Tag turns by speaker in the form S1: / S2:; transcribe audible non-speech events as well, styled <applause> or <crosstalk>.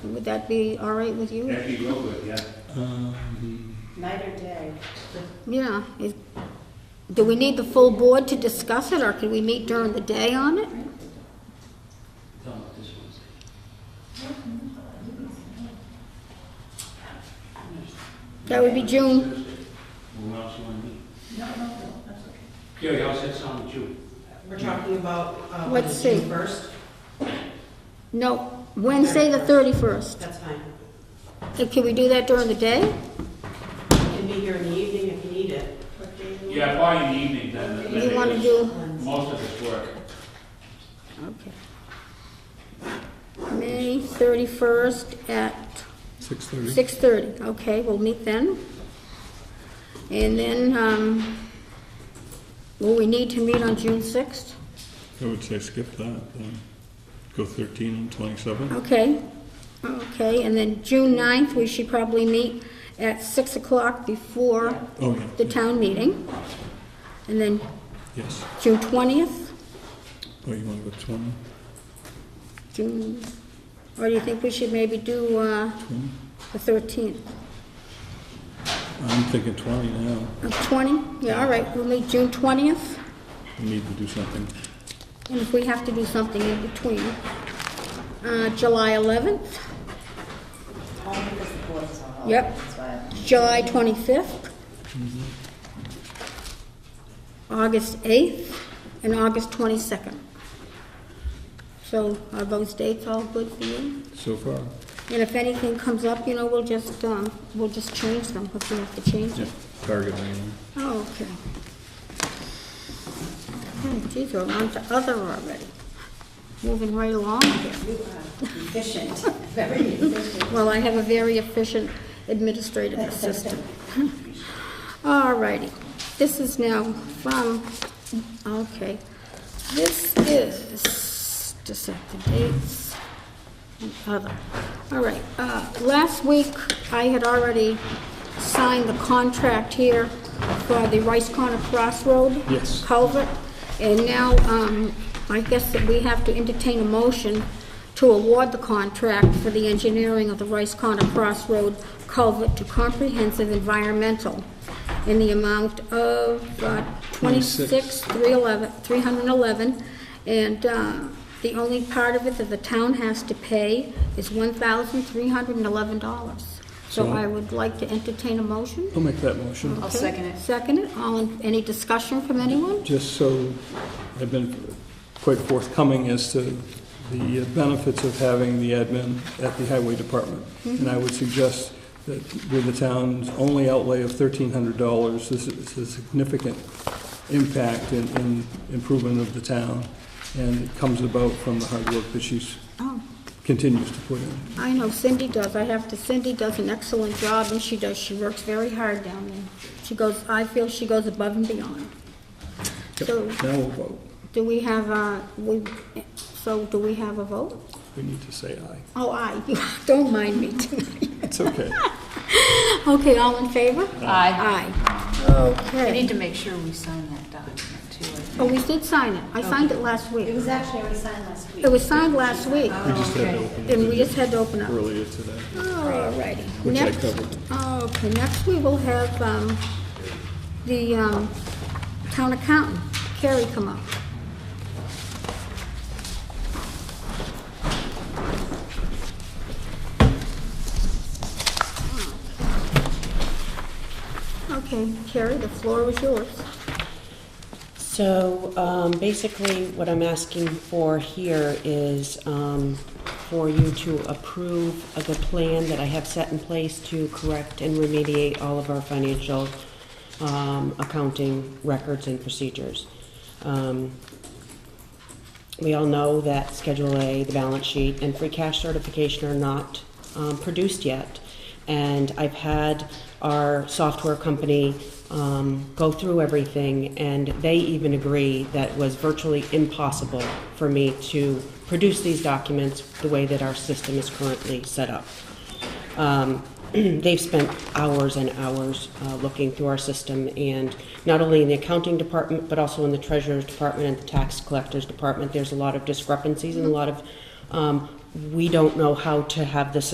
S1: Would that be all right with you?
S2: That'd be real good, yeah.
S3: Night or day?
S1: Yeah. Is- Do we need the full board to discuss it, or can we meet during the day on it? That would be June.
S2: Who else you want to meet? Gary, how's that sound with you?
S3: We're talking about, uh,
S1: Let's
S3: was it June
S1: see.
S3: first?
S1: No, Wednesday, the 31st.
S3: That's fine.
S1: Uh, Can we do that during the day?
S3: You can be here in the evening if you need it.
S2: Yeah, probably in the evening then.
S1: You want to do,
S2: Most of it's work.
S1: okay. May 31st at
S4: Six thirty.
S1: 6:30, okay, we'll meet then. And then, um, will we need to meet on June 6th?
S4: I would say skip that, then go thirteen and twenty-seven.
S1: Okay, okay, and then June 9th, we should probably meet at 6 o'clock before
S4: Oh,
S1: the
S4: yeah,
S1: town meeting. And then
S4: yes.
S1: June 20th,
S4: Oh, you want to go twenty?
S1: June, or do you think we should maybe do uh,
S4: Twenty?
S1: the 13th?
S4: I'm thinking twenty now.
S1: Uh, 20? Yeah, all right, we'll meet June 20th,
S4: We need to do something.
S1: and if we have to do something in between. Uh, July 11th?
S3: Only because the board is on
S1: Yep. July 25th, August 8th, and August 22nd. So are those dates all good for you?
S4: So far,
S1: And if anything comes up, you know, we'll just, um, we'll just change them, if we have to change
S4: yeah,
S1: them.
S4: target range.
S1: Oh, okay. Hmm, Geez, we're on to other already. Moving right along here.
S3: You are efficient, very efficient.
S1: Well, I have a very efficient administrative assistant. All righty. This is now from, okay. This is, just set the dates and other. All right. uh, Last week, I had already signed the contract here for the Rice Corner Crossroad
S4: Yes.
S1: culvert. And now, um, I guess that we have to entertain a motion to award the contract for the engineering of the Rice Corner Crossroad culvert to Comprehensive Environmental in the amount of uh, 26, 311, 311. And uh, the only part of it that the town has to pay is $1,311. So
S4: So-
S1: I would like to entertain a motion.
S4: I'll make that motion.
S1: I'll second it. Second it, all, in- any discussion from anyone?
S4: Just so, I've been quite forthcoming as to the benefits of having the admin at the highway department. And I would suggest that with the town's only outlay of thirteen hundred dollars, this is a significant impact in, in improvement of the town. And it comes about from the hard work that she's,
S1: Oh,
S4: continues to put in.
S1: I know Cindy does, I have to, Cindy does an excellent job, and she does, she works very hard down there. She goes, I feel she goes above and beyond. So,
S4: Now we'll vote.
S1: do we have a, we, so do we have a vote?
S4: We need to say aye.
S1: Oh, aye, you, <laughs> don't mind me tonight.
S4: It's okay.
S1: Okay, all in favor? Aye. Aye.
S5: We
S1: Okay.
S5: need to make sure we sign that document too. I think.
S1: Oh, we did sign it, I signed it last
S3: It
S1: week.
S3: was actually already signed last week.
S1: It was signed last week,
S4: We just had to
S5: Okay.
S4: open
S1: and we
S4: it
S1: just had to open up.
S4: earlier today.
S1: All righty.
S4: Which I
S1: Next-
S4: covered.
S1: Okay, next we will have um, the um, town accountant, Carrie, come up. Okay, Carrie, the floor is yours.
S6: So um, basically, what I'm asking for here is um, for you to approve of the plan that I have set in place to correct and remediate all of our financial um, accounting records and procedures. Um, we all know that Schedule A, the balance sheet, and free cash certification are not um, produced yet. And I've had our software company um, go through everything, and they even agree that it was virtually impossible for me to produce these documents the way that our system is currently set up. Um, <clears throat> They've spent hours and hours uh, looking through our system, and not only in the accounting department, but also in the treasurer's department and the tax collector's department, there's a lot of discrepancies and a lot of, um, we don't know how to have the system